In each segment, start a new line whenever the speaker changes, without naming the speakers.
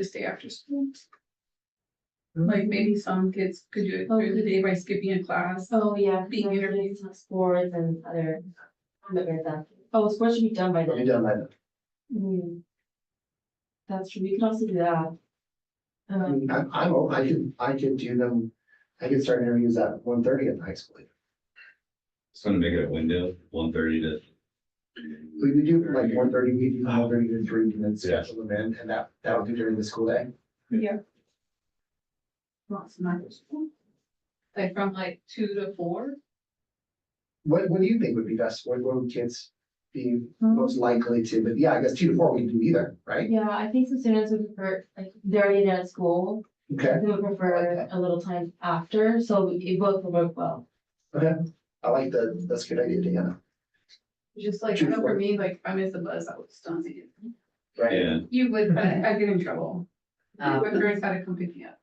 just day after school. Like maybe some kids could do it through the day by skipping a class.
Oh, yeah.
Being
because
interviewed.
it's Sports and other. Oh, sports should be done by
It'll be
then.
done by then.
Mm. That's true, we can also do that.
I
Um,
mean, I'm, I'm, o- I could, I could do them, I could start interviews at one thirty at the high school.
Just gonna make it a window, one thirty to,
We would do like one thirty, we do one thirty to three, and then
Yeah.
schedule them in, and that, that'll be during the school day.
Yeah. Lots of night school. Like from like two to four.
What, what do you think would be best? What, what would kids be most likely to, but yeah, I guess two to four we can do either, right?
yeah, I think some students would prefer, like, they're already done at school,
Okay,
they would prefer a little time after, so it both would work well.
I like the, that's a good idea, Deanna.
Just like,
Two
I
to
know
four.
for me, like if I miss a bus, I would stun it.
Right?
and
You would, but I get in trouble. My
Um,
parents had to come pick me up.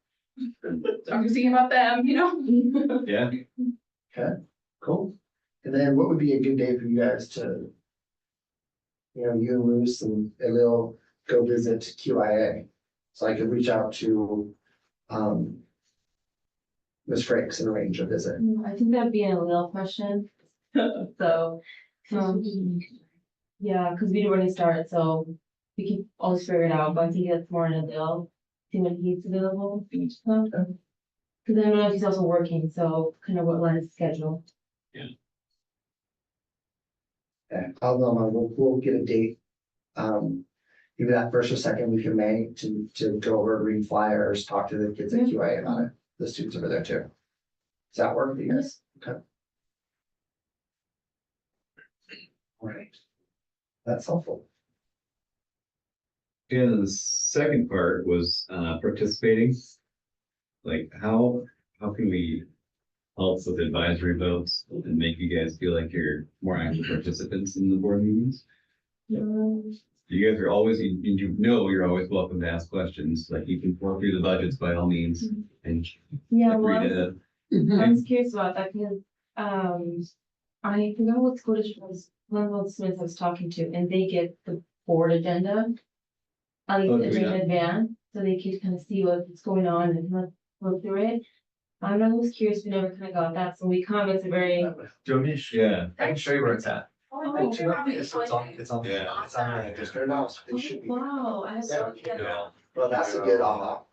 I'm just thinking about them, you know?
yeah,
Cool. And then what would be a good day for you guys to, you know, you and Luce and Elil go visit QIA? So I could reach out to, um, Ms. Frakes and arrange a visit.
Mm, I think that'd be a little question, so,
Oh,
um, yeah, because we didn't really start, so we can always figure it out, but I think that's more in a deal, see when he's available for each of them. Because I don't know if he's also working, so kind of what line is schedule.
And I'll, know, and we'll, we'll get a date. Um, either that first or second week of May to, to go over, read flyers, talk to the kids at QIA about it, the students over there too. Does that work for you guys? Okay. All right. That's helpful.
and the second part was, uh, participating. Like, how, how can we help with advisory votes and make you guys feel like you're more active participants in the board meetings?
Um,
You guys are always, you, you know, you're always welcome to ask questions, like you can work through the budgets by all means and
Mm-hmm. Yeah, well,
agree
I was-
to.
I was curious about that, because, um, I forgot what school district was, one of the students I was talking to, and they get the board agenda. At
Oh,
least
do we
it's in
not?
advance, so they could kind of see what's going on and kind of look through it. I don't know, I was curious, we never kind of got that, so we come, it's a very,
Do you want me to? sh-
Yeah,
I can show you where it's at.
Oh,
Do you want me to- so It's on, it's on,
Yeah.
it's on the
Just turn it off, it should be,
oh, wow, I have no idea.
Yeah.
well, that's a good uh, aha.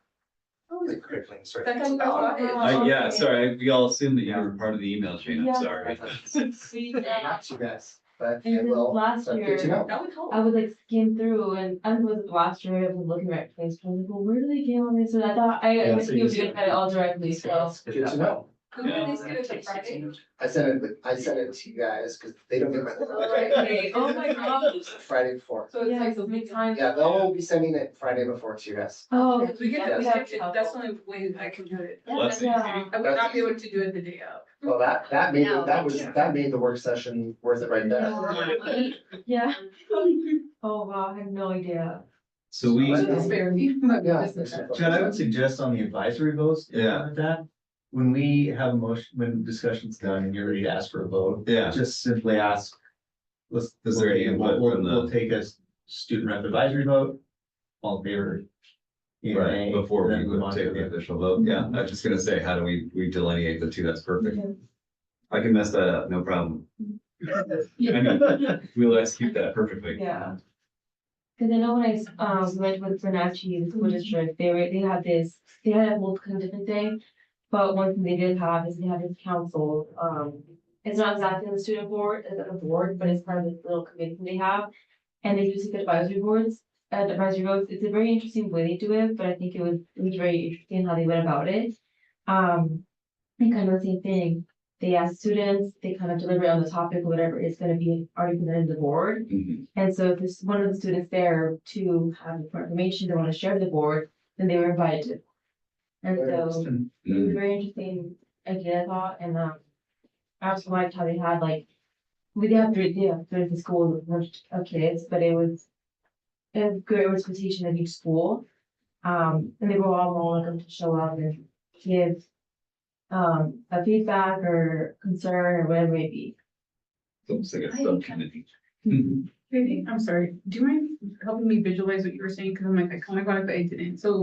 The crippling sort
That's
of-
about it.
Wow.
I, yeah, sorry, we all assumed that you were part of the email chain,
Yeah.
I'm sorry.
We did that.
Not you guys, but
And
it
then
will.
last
but Good to
year-
know.
That would help.
I would like skim through and I was last year, I was looking right place, I was like, well, where do they get all this? And I thought, I,
Yeah,
I was
so you
doing
just-
it all directly, so.
Good to know.
Who would they skip it to
Takes
Friday?
16.
I sent it, I sent it to you guys because they don't get
Right,
my
okay.
Oh my gosh.
Friday before.
So it's like, so we
times.
Yeah, they'll be sending it Friday before to you guys.
Oh.
we get that, we
that's
have to, that's the only way I can do it.
Well, that's
Yeah.
I would not be able to do it the day of.
Well, that, that made, it-
No,
that was,
yeah.
that made the work session worth it right there.
Yeah. Oh, wow, I had no idea.
So we.
But-
So just spare me. but
Yeah.
this is it.
Chad, I would suggest on the advisory votes. if you're
Yeah.
with That, when we have a motion, when discussion's done and you're ready to ask for a vote,
Yeah,
just simply ask. Let's.
Is there any
We'll,
input
we'll,
from the-
we'll take a s- student rep advisory vote. All in favor. yea or
right,
nay,
before we
then move
would
on to
take
the-
the official vote, yeah, I was just gonna say, how do we, we delineate the two, that's perfect.
Okay.
I can mess that up, no problem. I mean, we'll execute that perfectly.
Yeah. Cause I know when I, um, went with Bernatchi, the school district, they were, they had this, they had a whole kind of different thing. But one thing they did have is they had this council, um, it's not exactly the student board, it's not a board, but it's part of this little committee they have. And they do seek advisory boards, uh, advisory votes, it's a very interesting way they do it, but I think it was, it was very interesting how they went about it. Um, and kind of the same thing, they ask students, they kind of deliberate on the topic, whatever is gonna be already presented to the board.
Mhm.
And so if there's one of the students there to have more information they want to share with the board, then they were invited. And so it
Mm-hmm.
was a very interesting idea, I thought, and um, I also liked how they had like, we did have three, yeah, three the school, a bunch of kids, but it was a good representation of each school. Um, and they were all more welcome to show up and give um, a feedback or concern or whatever it may be.
It's almost like a subcommittee. Mhm.
Maybe, I'm sorry, do you mind helping me visualize what you were saying? Cause I'm like, I kind of got it, but I didn't. So